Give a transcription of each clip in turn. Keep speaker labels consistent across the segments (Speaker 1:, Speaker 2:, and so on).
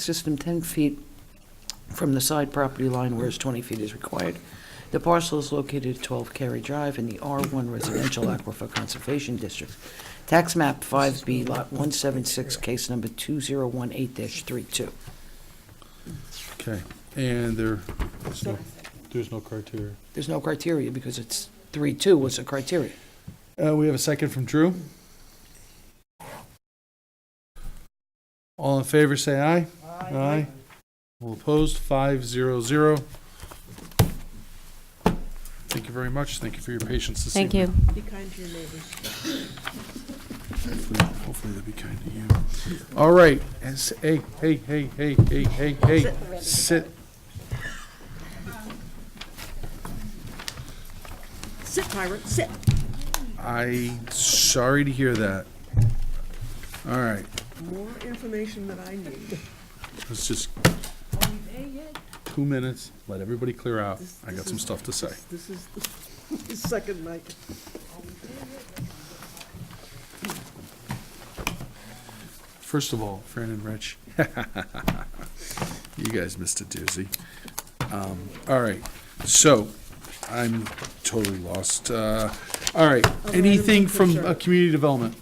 Speaker 1: system 10 feet from the side property line, whereas 20 feet is required. The parcel is located at 12 Cary Drive in the R1 Residential Aquifer Conservation District. Tax map 5B, lot 176, case number 2018-32.
Speaker 2: Okay, and there, there's no, there's no criteria.
Speaker 1: There's no criteria because it's 3-2 was a criteria.
Speaker 2: Uh, we have a second from Drew. All in favor, say aye. Aye. All opposed, five zero zero. Thank you very much. Thank you for your patience this
Speaker 3: Thank
Speaker 2: evening.
Speaker 3: you.
Speaker 4: Be kind to your neighbors.
Speaker 2: Hopefully- Hopefully they'll be kind to you. All right, and s- hey, hey, hey, hey, hey, hey, hey, sit.
Speaker 4: Sit, pirate, sit.
Speaker 2: I, sorry to hear that. All right,
Speaker 4: More information than I need.
Speaker 2: let's just, two minutes, let everybody clear out. I got some stuff to say.
Speaker 4: This is the second night.
Speaker 2: First of all, Fran and Rich, you guys missed a doozy. Um, all right, so I'm totally lost. Uh, all right, anything from uh, community development?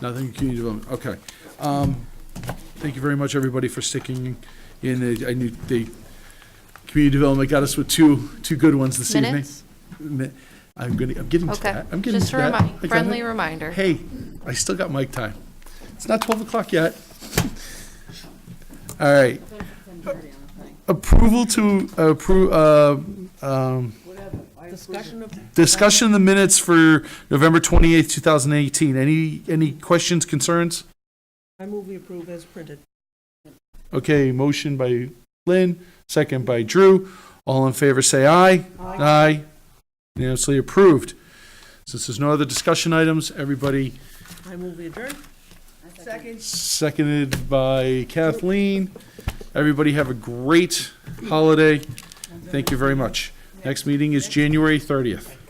Speaker 2: Nothing in community development, okay. Um, thank you very much, everybody, for sticking in. They- I knew they, community development got us with two, two good ones this evening.
Speaker 3: Minutes?
Speaker 2: Mi- I'm gonna, I'm getting to
Speaker 3: Okay.
Speaker 2: that. I'm getting
Speaker 3: Just
Speaker 2: to
Speaker 3: a
Speaker 2: that.
Speaker 3: remi-
Speaker 2: I got
Speaker 3: friendly
Speaker 2: it.
Speaker 3: reminder.
Speaker 2: Hey, I still got mic time. It's not 12 o'clock yet. All right. Approval to approve, uh, um,
Speaker 4: Discussion of,
Speaker 2: discussion of the minutes for November 28th, 2018. Any, any questions, concerns?
Speaker 4: I move we approve as printed.
Speaker 2: Okay, motion by Lynn, second by Drew. All in favor, say aye. Aye. Unanimously approved. Since there's no other discussion items, everybody
Speaker 4: I move we adjourn. Second.
Speaker 2: seconded by Kathleen. Everybody have a great holiday. Thank you very much. Next meeting is January 30th.